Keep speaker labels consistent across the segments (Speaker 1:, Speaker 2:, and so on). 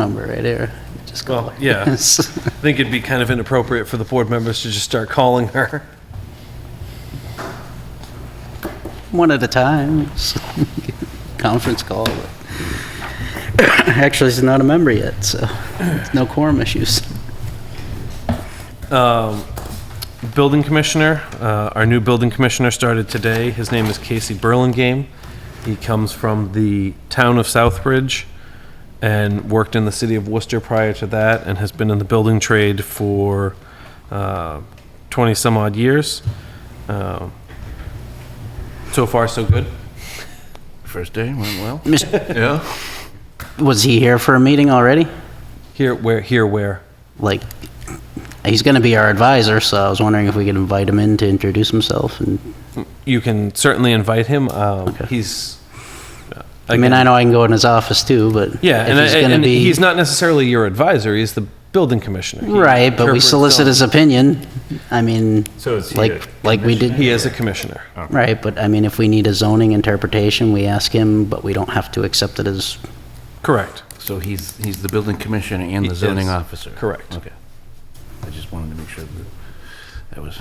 Speaker 1: number right here. Just call
Speaker 2: Well,
Speaker 1: her.
Speaker 2: yeah.
Speaker 1: Yes.
Speaker 2: I think it'd be kind of inappropriate for the board members to just start calling her.
Speaker 1: One at a time. Conference call. Actually, she's not a member yet, so no quorum issues.
Speaker 2: Building commissioner, uh, our new building commissioner started today. His name is Casey Burlingame. He comes from the town of Southbridge and worked in the city of Worcester prior to that and has been in the building trade for 20-some odd years. Uh, So far, so good.
Speaker 3: First day went well.
Speaker 1: Mis-
Speaker 3: Yeah.
Speaker 1: Was he here for a meeting already?
Speaker 2: Here, where, here, where?
Speaker 1: Like, he's going to be our advisor, so I was wondering if we could invite him in to introduce himself. And
Speaker 2: You can certainly invite him. Um,
Speaker 1: Okay.
Speaker 2: He's.
Speaker 1: I mean, I know I can go in his office too, but
Speaker 2: Yeah,
Speaker 1: if
Speaker 2: and,
Speaker 1: he's
Speaker 2: he's,
Speaker 1: going to
Speaker 2: and
Speaker 1: be
Speaker 2: he's not necessarily your advisor. He's the building commissioner. He
Speaker 1: right, but we
Speaker 2: interprets
Speaker 1: solicit
Speaker 2: zoning.
Speaker 1: his opinion. I mean,
Speaker 4: So is he
Speaker 1: like
Speaker 4: a
Speaker 1: like we did.
Speaker 2: He is a commissioner.
Speaker 1: Right, but I mean, if we need a zoning interpretation, we ask him, but we don't have to accept it as,
Speaker 2: Correct.
Speaker 3: So he's, he's the building commissioner and
Speaker 2: He
Speaker 3: the zoning
Speaker 2: is.
Speaker 3: officer?
Speaker 2: Correct.
Speaker 3: Okay. I just wanted to make sure that that was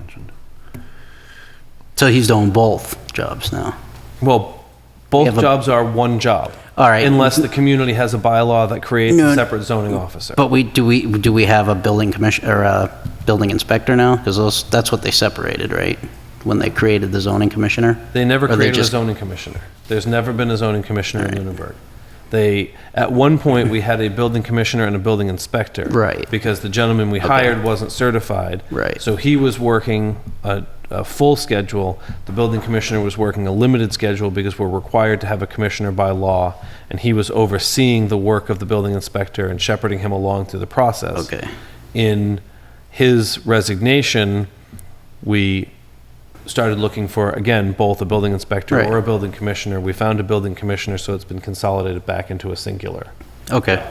Speaker 3: mentioned.
Speaker 1: so he's doing both jobs now.
Speaker 2: Well,
Speaker 1: We
Speaker 2: both
Speaker 1: have a-
Speaker 2: jobs are one job.
Speaker 1: All right.
Speaker 2: Unless the community has a bylaw that creates
Speaker 1: No.
Speaker 2: a separate zoning officer.
Speaker 1: But we, do we, do we have a building commission, or a building inspector now? Because those, that's what they separated, right? When they created the zoning commissioner?
Speaker 2: They never
Speaker 1: Or they
Speaker 2: created
Speaker 1: just-
Speaker 2: a zoning commissioner. There's never been a zoning commissioner in Lunenburg. They, at one point, we had a building commissioner and a building inspector.
Speaker 1: Right.
Speaker 2: Because the gentleman we hired wasn't certified.
Speaker 1: Right.
Speaker 2: So he was working a, a full schedule. The building commissioner was working a limited schedule because we're required to have a commissioner by law. And he was overseeing the work of the building inspector and shepherding him along through the process.
Speaker 1: Okay.
Speaker 2: In his resignation, we started looking for, again, both a building inspector
Speaker 1: Right.
Speaker 2: or a building commissioner. We found a building commissioner, so it's been consolidated back into a singular.
Speaker 1: Okay,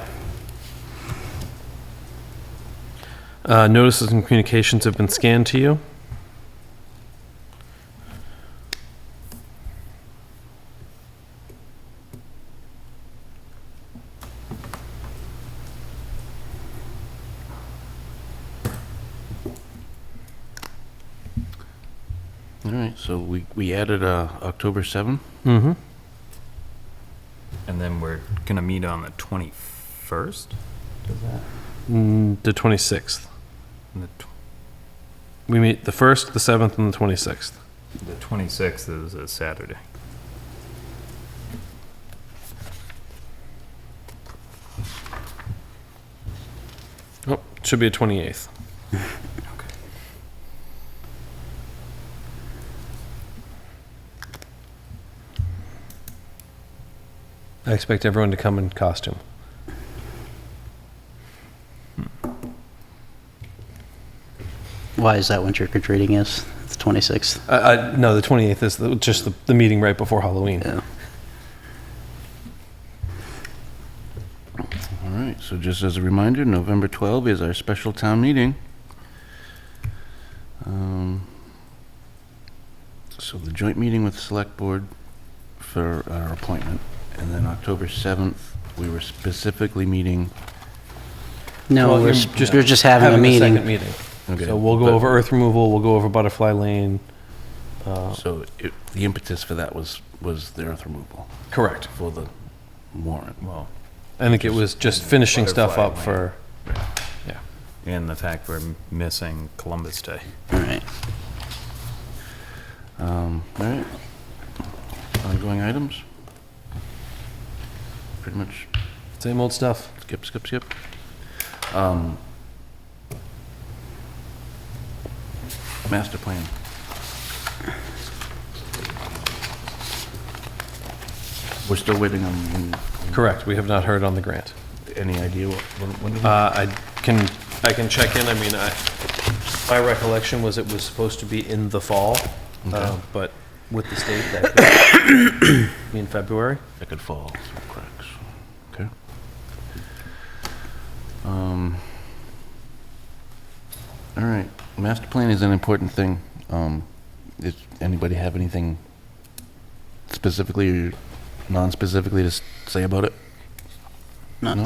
Speaker 2: Uh, Notices and communications have been scanned to you.
Speaker 3: All right, so we, we added uh, October 7th?
Speaker 2: Mm-hmm.
Speaker 4: And then we're gonna meet on the twenty-first?
Speaker 2: Mm, The 26th.
Speaker 4: The
Speaker 2: We meet the 1st, the 7th, and the 26th.
Speaker 4: twenty-sixth is a Saturday.
Speaker 2: Oh, should be a 28th. I expect everyone to come in costume.
Speaker 1: why is that when trick or treating is, the 26th?
Speaker 2: Uh, uh, no, the 28th is the, just the, the meeting right before Halloween.
Speaker 1: Yeah.
Speaker 3: All right, so just as a reminder, November 12th is our special town meeting. Um, So the joint meeting with the Select Board for our appointment, and then October 7th, we were specifically meeting.
Speaker 1: No,
Speaker 2: Well,
Speaker 1: we're,
Speaker 2: you're
Speaker 1: s- we're just having a
Speaker 2: the
Speaker 1: meeting.
Speaker 2: second meeting.
Speaker 3: Okay,
Speaker 2: So we'll go
Speaker 3: but-
Speaker 2: over earth removal, we'll go over butterfly lane. Uh,
Speaker 3: So it- the impetus for that was, was the earth removal
Speaker 2: correct.
Speaker 3: for the warrant.
Speaker 4: Well,
Speaker 2: I think it was just finishing stuff up
Speaker 4: Butterfly
Speaker 2: for.
Speaker 4: and the fact we're missing Columbus Day.
Speaker 1: All right.
Speaker 3: Um, All right. Ongoing items? Pretty much
Speaker 2: Same old stuff.
Speaker 3: Skip, skip, skip. Um, Master plan. We're still waiting on, on
Speaker 2: Correct. We have not heard on the grant.
Speaker 3: any idea what, when- when do we?
Speaker 2: Uh, I can, I can check in, I mean, I, my recollection was it was supposed to be in the fall, uh, but with the state, that could be in February.
Speaker 3: That could fall through cracks. Okay. Um, All right, master plan is an important thing. Um, Does anybody have anything specifically or non-specifically to s- say about it?
Speaker 1: Not-